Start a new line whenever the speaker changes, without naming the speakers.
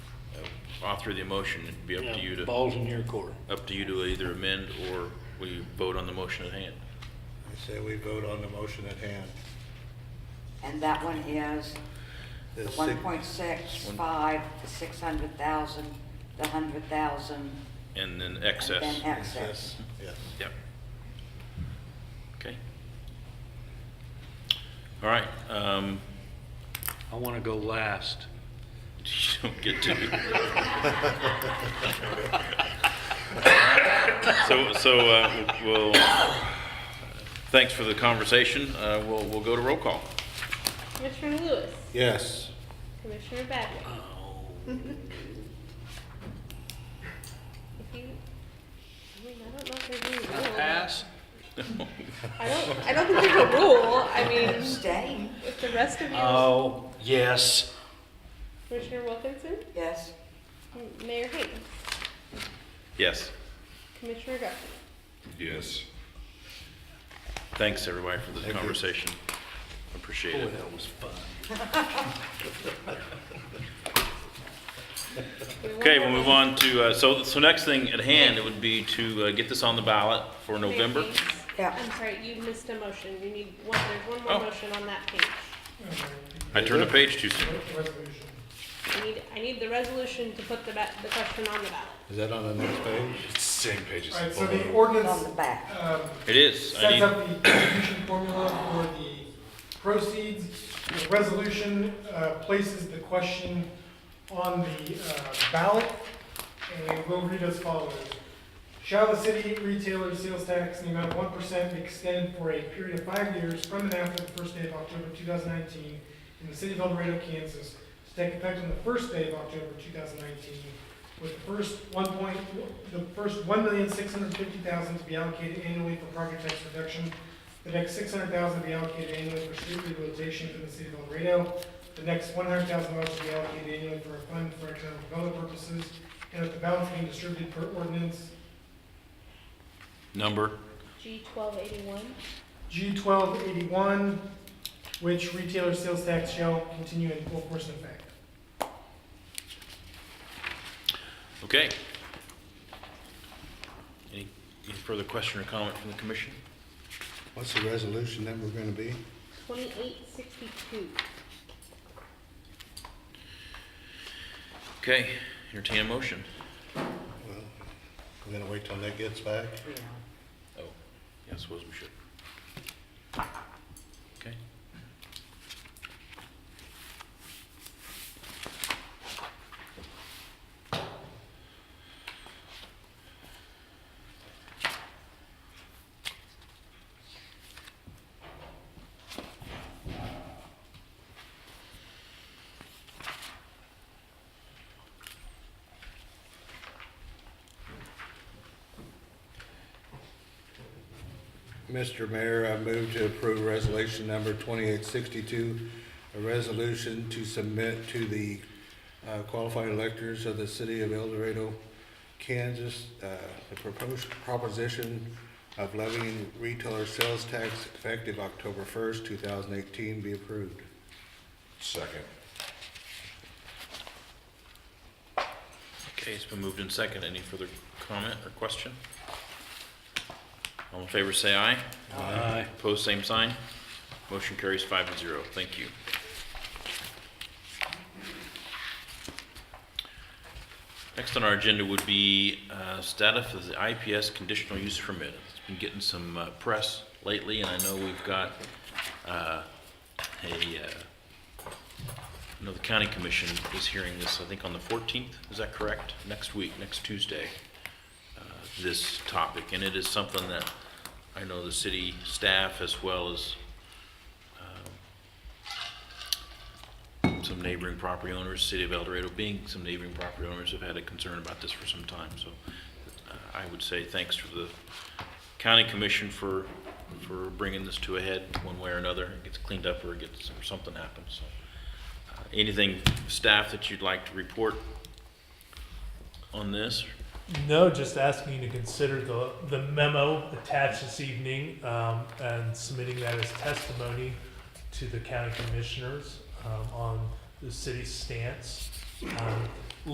I'll throw uh, the motion, it'd be up to you to,
Balls in your court.
up to you to either amend or we vote on the motion at hand.
I say we vote on the motion at hand.
And that one is the
It's
one
six-
point six five, the six hundred thousand, the hundred thousand,
And then
and
excess.
then excess.
Yes.
Yep. Okay. All right, um,
I want to go last.
you don't get to. So, so, uh, we'll, thanks for the conversation. Uh, we'll, we'll go to roll call.
Commissioner Lewis.
Yes.
Commissioner Badway. If you, I mean, I don't know if there's any rule.
Pass?
I don't, I don't think there's a rule. I mean,
Abstain,
if the rest of you,
Oh, yes.
Commissioner Wilkinson,
yes.
Mayor Haynes,
Yes.
Commissioner Duffy.
Yes. Thanks, everybody, for the
you.
conversation. Appreciate
Boy,
it.
that was fun.
Okay, we'll move on to, uh, so, so next thing at hand, it would be to uh, get this on the ballot for November.
Yeah.
I'm sorry, you missed a motion. You need one, there's one more
Oh.
motion on that page.
Uh,
I turned a page too soon.
I need, I need the resolution to put the, ba- the question on the ballot.
Is that on the next page?
Same page
All right,
as
so
below.
the ordinance
On the back.
um,
It is. I
sets
need,
up the distribution formula for the proceeds. The resolution uh, places the question on the uh, ballot, and it will read as follows. Shall the city retailer's sales tax in the amount of one percent extend for a period of five years from and after the first day of October two thousand nineteen in the city of El Dorado, Kansas, to take effect on the first day of October two thousand nineteen, with the first one point, the first one million six hundred fifty thousand to be allocated annually for property tax reduction, the next six hundred thousand to be allocated annually for street rehabilitation in the city of El Dorado, the next one hundred thousand dollars to be allocated annually for a fund for economic development purposes, and with the balance being distributed per ordinance
number,
G twelve eighty-one.
G twelve eighty-one, which retailer sales tax shall continue in full force and effect.
okay. Any, any further question or comment from the commission?
What's the resolution that we're gonna be?
2862.
Okay, entertain a motion.
Well, We're gonna wait till that gets back?
Oh, yeah, I suppose we should. Okay.
Mr. Mayor, I move to approve resolution number 2862, a resolution to submit to the uh, qualified electors of the city of El Dorado, Kansas, uh, the proposed proposition of levying retailer sales tax effective October 1st, 2018 be approved.
Second.
Okay, it's been moved in second. Any further comment or question? All in favor, say aye.
Aye.
Opposed, same sign. Motion carries five to zero. Thank you. Next on our agenda would be uh, status of the IPS conditional use permit. It's been getting some uh, press lately, and I know we've got uh, a, uh, I know the county commission is hearing this, I think, on the 14th. Is that correct? Next week, next Tuesday uh, this topic, and it is something that I know the city staff as well as um, some neighboring property owners, City of El Dorado being some neighboring property owners, have had a concern about this for some time. So uh, I would say thanks to the county commission for, for bringing this to a head one way or another. It gets cleaned up or it gets, or something happens, so. uh, Anything, staff, that you'd like to report on this?
No, just asking you to consider the, the memo attached this evening um, and submitting that as testimony to the county commissioners um, on the city's stance. Um,